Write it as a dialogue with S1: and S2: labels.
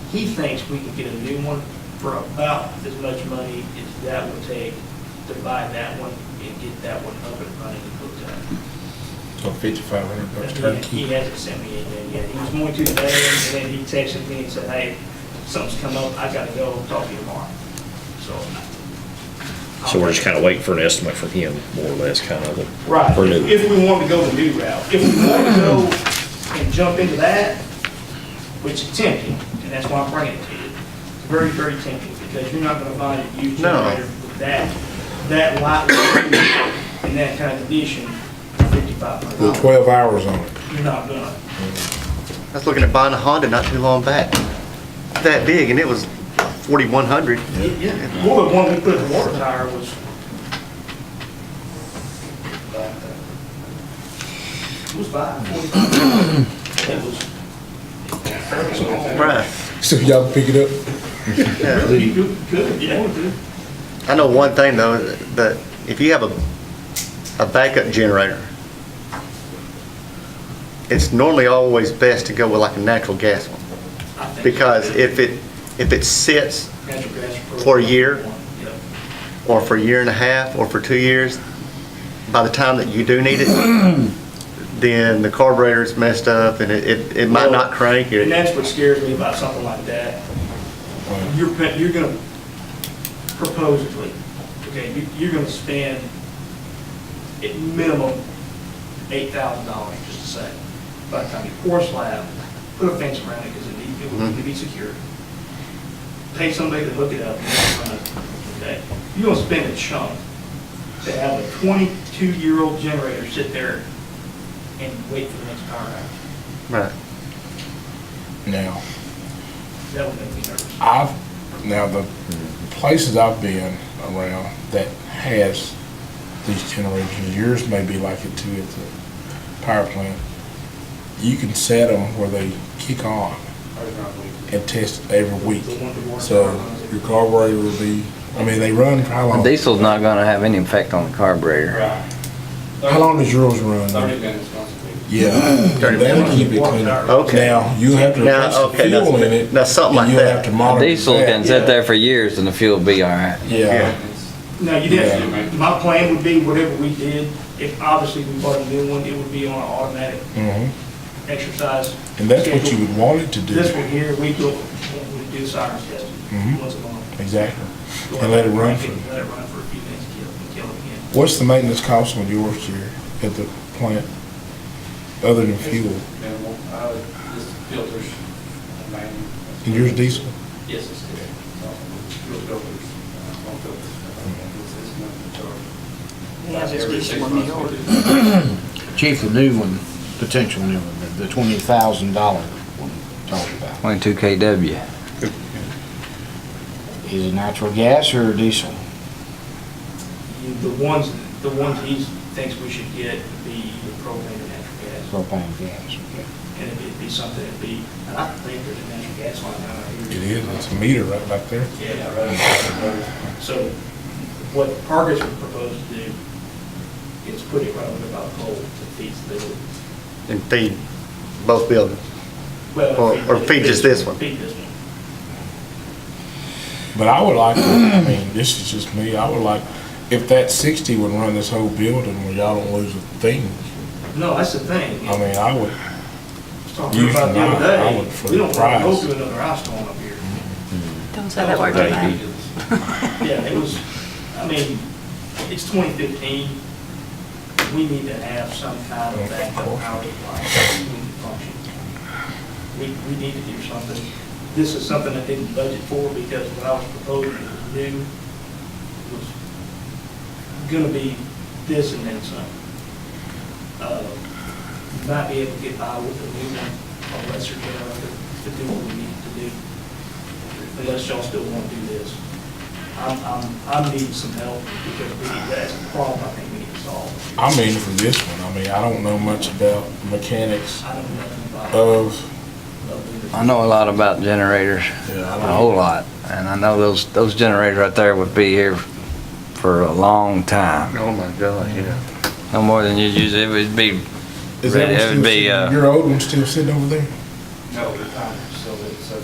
S1: He thinks we can get a new one for about as much money as that would take to buy that one and get that one up and running and hooked up.
S2: So fifty-five hundred bucks
S1: And He
S2: turnkey.
S1: he hasn't sent me anything yet. He was going to today, and then he texted me and said, hey, something's come up, I gotta go, talk to you tomorrow. So.
S3: So we're just kind of waiting for an estimate from him, more or less, kind of.
S1: Right,
S3: For new.
S1: if we want to go the new route. If we want to go and jump into that, which is tempting, and that's why I'm bringing it to you, it's very, very tempting, because you're not gonna find a used
S2: No.
S1: generator with that, that light in that kind of condition, for fifty-five hundred
S2: With
S1: dollars.
S2: twelve hours on it.
S1: You're not gonna.
S4: I was looking at buying a Honda not too long back, that big, and it was 4,100.
S1: Yeah, well, the one we put in the water tower was. It was five, forty-five. It was.
S4: Bruh,
S2: So y'all pick it up?
S1: Really good, yeah, it was
S4: I know one thing though, that if you have a, a backup generator, it's normally always best to go with like a natural gas one,
S1: good.
S4: because if it, if it sits
S1: Natural gas
S4: for a year?
S1: Yeah.
S4: or for a year and a half, or for two years, by the time that you do need it, then the carburetor's messed up and it, it, it might not crank.
S1: And
S4: or-
S1: that's what scares me about something like that. You're, pe- you're gonna, proposedly, okay, you, you're gonna spend at minimum eight thousand dollars, just to say, by the time you pour slab, put a fence around it, because it need, it will need to be secure. Pay somebody to hook it up, and run it, okay? You're gonna spend a chunk to have a twenty-two-year-old generator sit there and wait for the next power outage.
S4: Right.
S2: Now,
S1: That would make me nervous.
S2: I've, now the places I've been around that has these generators, yours may be like it too at the power plant. You can set them where they kick on and test every week. So your carburetor will be, I mean, they run for how long?
S5: Diesel's not gonna have any effect on the carburetor.
S2: How long does yours run?
S6: Thirty minutes, possibly.
S2: Yeah,
S4: Thirty
S2: that'll keep it clean.
S4: Okay.
S2: Now, you have to
S4: Now,
S2: replace the
S4: okay, that's-
S2: fuel in it.
S4: that's something
S2: and
S4: like
S2: you'll
S4: that.
S2: have to monitor
S5: Diesel
S2: that.
S5: can sit there for years and the fuel will be all right.
S2: Yeah,
S1: No, you didn't. My plan would be whatever we did, if obviously we bought a new one, it would be on an automatic
S2: mhm.
S1: exercise.
S2: and that's what you
S1: schedule.
S2: would want it to do.
S1: This one here, we do, we do sirens testing
S2: Mhm.
S1: once a month.
S2: Exactly. And let it run for-
S1: Let it run for a few minutes, kill, and kill it again.
S2: What's the maintenance cost on yours here at the plant, other than fuel?
S6: And, uh, just filters, and mainly.
S2: And yours diesel?
S6: Yes, it's good. Fuel filters, uh, home filters.
S2: Mm-hmm.
S6: It's- it's nothing to charge.
S7: Yeah, it's
S6: Every six
S7: diesel on
S6: months
S7: the
S6: we
S7: order.
S6: do.
S8: Chief, the new one, potential new one, the twenty thousand dollar one you talked about,
S5: Twenty-two KW.
S8: is it natural gas or diesel?
S1: You- The ones, the ones he thinks we should get would be the propane and natural gas.
S8: Propane gas, okay.
S1: And it'd be- it'd be something, it'd be, and I think there's a natural gas line out
S2: It
S1: here.
S2: is, it's a meter right back there.
S1: Yeah, right. So what Argus would propose to do is put it right over about coal to feed the building.
S4: And feed both buildings.
S1: Well,
S4: Or- or feed just this one.
S1: Feed this one.
S2: But I would like, to- I mean, this is just me, I would like, if that sixty would run this whole building where y'all don't lose a thing,
S1: No, that's the thing.
S2: I mean, I would,
S1: was Talking about the
S2: Usually I-
S1: other
S2: I
S1: day,
S2: would for
S1: we
S2: the
S1: don't want to go
S2: price.
S1: through another ice storm up here.
S7: Don't say that word too
S3: Thank
S7: loud.
S3: you.
S1: Yeah, it was, I mean, it's twenty fifteen. We need to have some kind of backup power supply We need to function. We, we need to do something. This is something I didn't budget for because what I was proposing was new, was gonna be this and then some. Uh, Might be able to get by with a new one, a lesser generator, to do what we need to do. Unless y'all still wanna do this. I'm, I'm, I'm needing some help because we, that's a problem I think we need to solve.
S2: I mean, for this one, I mean, I don't know much about mechanics
S1: I don't know nothing about.
S2: of,
S5: Uh, I know a lot about generators,
S2: yeah, I
S5: a
S2: don't know.
S5: whole lot, and I know those, those generators right there would be here for a long time.
S4: Oh my God, yeah.
S5: No more than you'd use, it would be,
S2: Is that
S5: Right, it
S2: one
S5: would
S2: still
S5: be,
S2: sitting-
S5: uh,
S2: Your old one's still sitting over there?
S6: No, the time.